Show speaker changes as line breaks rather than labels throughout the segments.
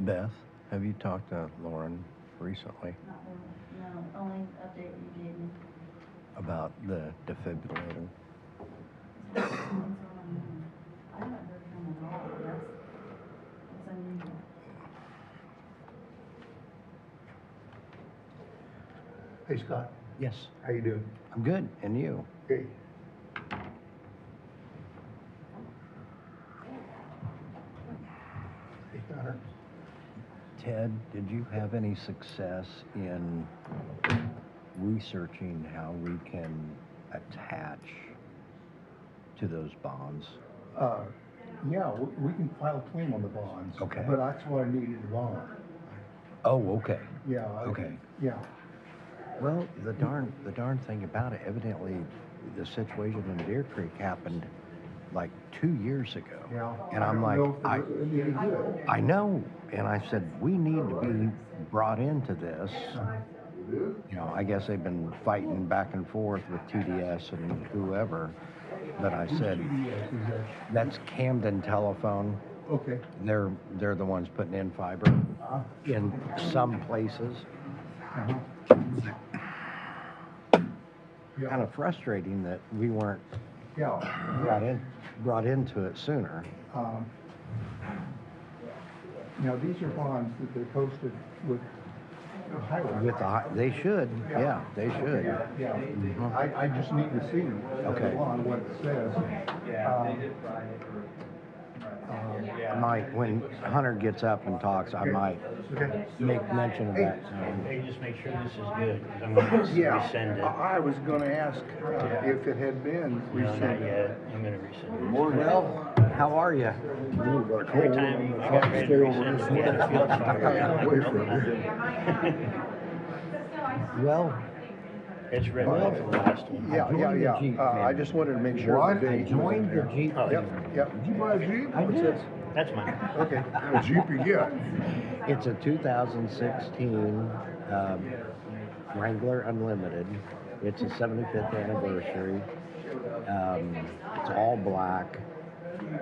Beth, have you talked to Lauren recently
Not really, no, only update you gave me.
about the defibrillator?
I haven't heard from him at all, that's, that's unusual.
Hey Scott,
Yes.
how you doing?
I'm good, and you?
Hey. Hey Connor,
Ted, did you have any success in researching how we can attach to those bonds?
uh, yeah, we- we can file a claim on the bonds.
Okay.
But that's why I needed a bond.
Oh, okay.
Yeah. I-
Okay.
Yeah,
Well, the darn, the darn thing about it, evidently, the situation in Deer Creek happened like two years ago.
yeah.
And I'm
I don't
like,
know
I-
if it- it'd be any good.
I know, and I said, we need to be brought into this. You know, I guess they've been fighting back and forth with TDS and whoever, but I said,
Yes, is that-
that's Camden Telephone.
Okay.
They're, they're the ones putting in fiber
Uh,
in some places.
uh-huh.
Kind
Yeah,
of frustrating that we weren't
yeah.
brought in, brought into it sooner.
Um, Now, these are bonds that they're posted with highway.
With the, hi- they should, yeah, they should.
Yeah, I, I just need to see them.
Mm-hmm. Okay.
On what it says.
Yeah,
Um,
they did fry it for.
I might, when Hunter gets up and talks, I might
Um, Okay.
make mention of that. so.
Hey, just make sure this is good, because I'm gonna resend it.
I I was gonna ask uh, if it had been
No, not
rescinded.
yet, I'm gonna resend it.
Well, how are you?
Every time I get ready to resend it, we had a field fire.
Well,
It's red off the last one.
I
Yeah,
joined
yeah,
the
yeah.
Jeep
Uh, I
family.
just wanted to make sure.
What?
the
I
date was
joined the
there.
Jeep
Yep,
family.
yep. Did you buy a Jeep?
I did.
That's mine.
Okay.
Jeep you get?
It's a 2016 um, Wrangler Unlimited. It's a 75th anniversary. Um, it's all black.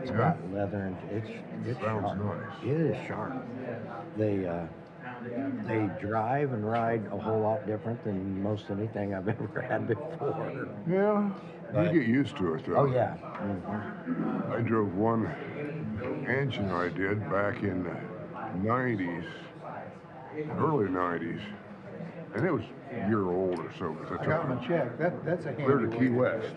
It's got leather and it's it's
Sounds
sharp.
nice.
It is sharp. They uh, they drive and ride a whole lot different than most anything I've ever had before.
Yeah.
Right.
You get used to it though.
Oh yeah. Mhm.
I drove one engine I did back in the 90s, early 90s, and it was a year old or so. 'cause I
I
took
got
it
my check. That, that's a handy.
clear to Key
one.
West.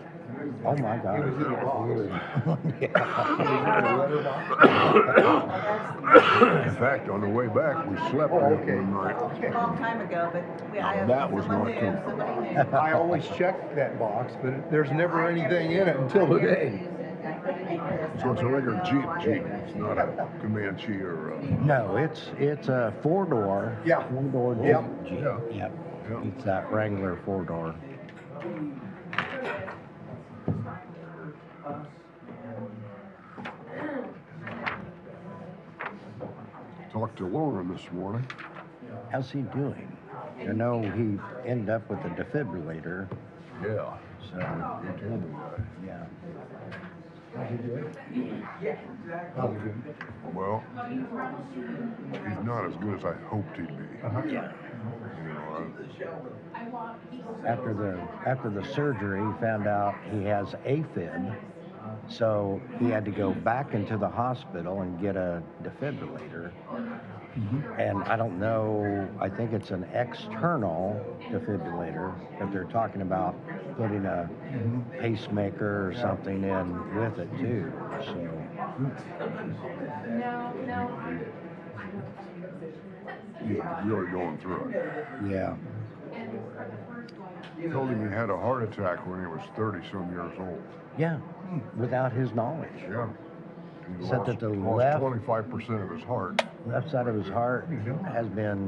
Oh my God.
It was in a box.
In fact, on the way back, we slept
Oh,
in it
okay.
one night.
A long time ago, but we, I,
That was
someone
not
knew,
too-
somebody knew.
I always check that box, but there's never anything in it until
I never
today.
used it. I put it in this.
So it's a regular
No,
Jeep
I
Jeep.
didn't.
It's not a Comanche or uh, a.
No, it's it's a four door.
Yeah.
Four door Jeep.
Yep.
Jeep.
Yeah.
Yep.
Yeah.
It's that Wrangler four door.
Talked to Lauren this morning.
How's he doing? I know he ended up with a defibrillator.
Yeah.
So
He told me that.
yeah.
Probably good.
Well, he's not as good as I hoped he'd be.
Yeah.
You know,
After the after the surgery, he found out he has AFib, so he had to go back into the hospital and get a defibrillator. And I don't know. I think it's an external defibrillator, but they're talking about putting a pacemaker or something in with it too. So
you're really going through it.
yeah,
He told him he had a heart attack when he was 30 some years old.
yeah, without his knowledge.
Yeah. And he
Said
lost,
that the
lost
left-
25% of his heart.
left side of his heart has been